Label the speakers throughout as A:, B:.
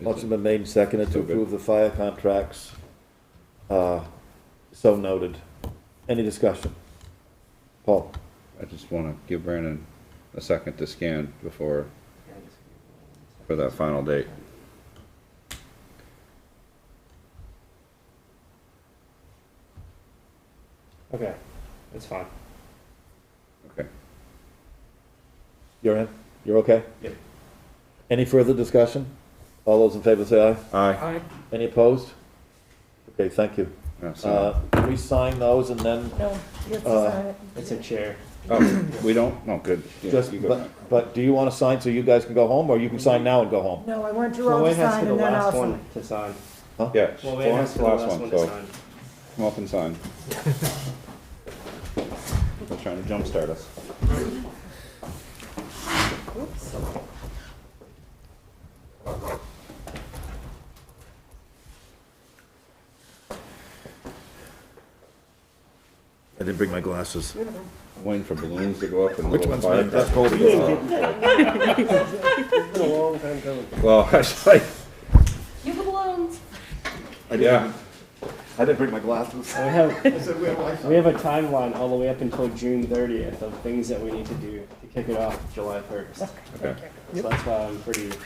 A: Motion been made and seconded to
B: So good.
A: approve the fire contracts. Uh, So noted. Any discussion? Paul?
B: I just want to give Brandon a second to scan before, for that final date.
C: Okay, that's fine.
B: Okay.
A: You're in? You're okay?
C: Yep.
A: Any further discussion? All those in favor say aye.
B: Aye.
C: Hi.
A: Any opposed? Okay, thank you.
B: Yeah, so-
A: Uh, Can we sign those and then,
D: No, you have
A: Uh,
D: to sign it.
C: It's a chair.
B: Oh, we don't, no, good. Yeah,
A: just,
B: you go
A: but, but do you want to sign so you guys can go home, or you can sign now and go home?
D: No, I want you all
C: Floyd
D: to
C: has to
D: sign
C: be the
D: and then I'll
C: last
D: sign.
C: one to sign.
B: back. Yeah,
C: Floyd has
B: Florence,
C: to
B: the
C: be the last one
B: so
C: to sign.
B: come up and sign. They're trying to jumpstart us.
D: Oops.
A: I didn't bring my glasses.
B: Waiting for balloons to go up and.
A: Which
B: little
A: one's
B: fire
A: mine? That's
B: trucks.
C: It's been a long time coming.
B: Well, I was like,
E: You have balloons.
B: yeah,
A: I didn't bring my glasses.
C: We have, we have a timeline all the way up until June thirtieth of things that we need to do to kick it off July first.
B: okay,
C: So that's why I'm pretty.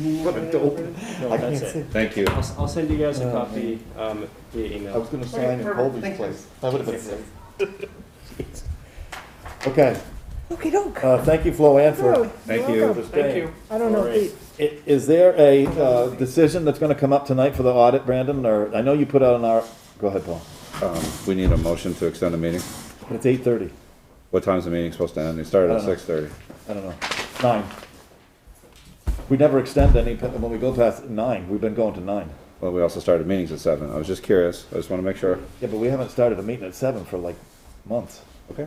A: What a dope.
C: No, that's it.
B: thank you.
C: I'll, s will send you guys a copy um, via
A: I
C: email.
A: was gonna sign in Colby's place. That would have been sick. Okay,
D: Okey
C: Oh,
D: doke.
A: uh, thank you, Flo Anne,
D: Oh,
A: for
B: Thank
D: you're
B: you.
D: welcome.
A: for staying.
D: I don't know, if
A: I- Is there a, uh, decision that's gonna come up tonight for the audit, Brandon, or, I know you put out an R, go ahead, Paul,
B: Um, we need a motion to extend the meeting.
A: but it's eight thirty,
B: What time's the meeting supposed to end? It started
A: I
B: at
A: don't know.
B: six thirty.
A: I don't know, nine. We never extend any, when we go past nine, we've been going to nine.
B: Well, we also started meetings at seven. I was just curious. I just want to make sure.
A: Yeah, but we haven't started a meeting at seven for like months.
B: Okay.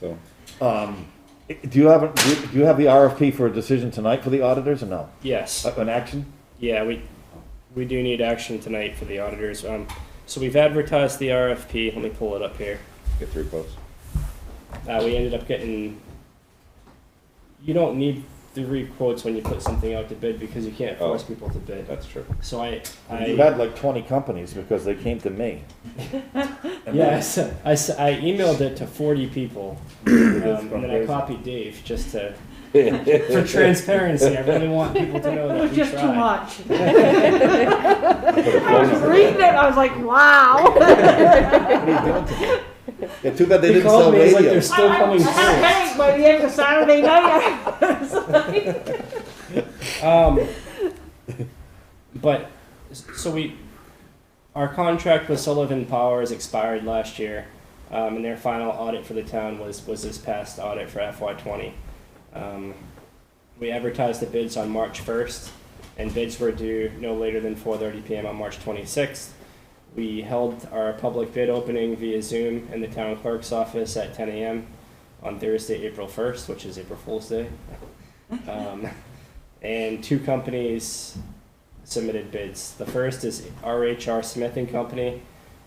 B: So,
A: Um, i- do you have, a- do do you have the RFP for a decision tonight for the auditors or no?
C: Yes.
A: Uh, An action?
C: Yeah, we, we do need action tonight for the auditors. Um, so we've advertised the RFP. Let me pull it up here.
B: get three quotes.
C: Uh, we ended up getting. You don't need three quotes when you put something out to bid because you can't force
B: Oh.
C: people to bid.
B: That's true.
C: So I, I
A: You had like twenty companies because they came to me.
C: yes, I, s- I emailed it to forty people, um, and then I
A: fundraising.
C: copied Dave just to for transparency. I really want people to know
D: it
C: that
D: was
C: we
D: just too
C: tried.
D: much.
B: I
D: I was reading it, I was like, wow.
A: Yeah, too bad they
C: He
A: didn't
C: called
A: sell
C: me, he's like,
A: radio.
C: "There's Still coming
D: I had a
C: through.
D: headache by the end of Saturday night.
C: Um, but so we, our contract with Sullivan Powers expired last year, um, and their final audit for the town was was this past audit for FY twenty. Um, we advertised the bids on March first, and bids were due no later than four thirty p.m. on March twenty sixth. We held our public bid opening via Zoom in the town clerk's office at ten a.m. on Thursday, April first, which is April Fool's Day. Um, and two companies submitted bids. The first is RHR Smith and Company.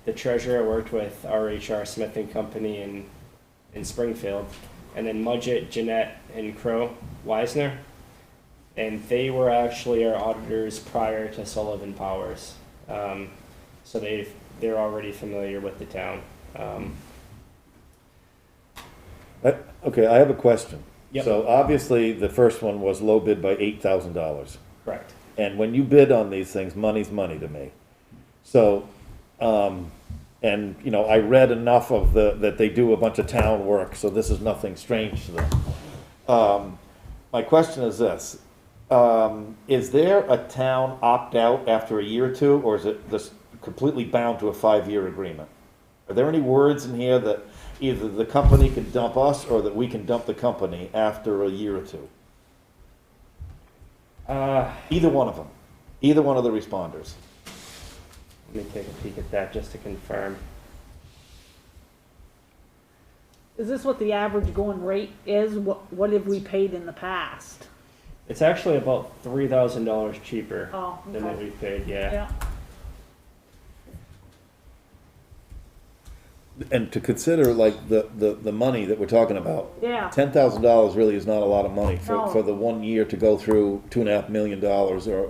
C: The treasurer worked with RHR Smith and Company in in Springfield, and then Mudgett, Jeanette, and Crow Weisner, and they were actually our auditors prior to Sullivan Powers, um, so they they're already familiar with the town. Um,
A: Uh, Okay, I have a question.
C: Yep.
A: So obviously, the first one was low bid by eight thousand dollars.
C: correct.
A: And when you bid on these things, money's money to me. So, um, and, you know, I read enough of the, that they do a bunch of town work, so this is nothing strange to them. Um, my question is this, um, is there a town opt-out after a year or two, or is it this completely bound to a five-year agreement? Are there any words in here that either the company can dump us, or that we can dump the company after a year or two?
C: Uh,
A: Either one of them, either one of the responders.
C: let me take a peek at that just to confirm.
D: Is this what the average going rate is? What, what have we paid in the past?
C: It's actually about three thousand dollars cheaper
D: Oh,
C: than what
D: okay.
C: we paid. Yeah.
D: Yeah.
A: and to consider like the, the, the money that we're talking about.
D: Yeah.
A: Ten thousand dollars really is not a lot of money for,
D: No.
A: for the one year to go through two and a half million dollars or,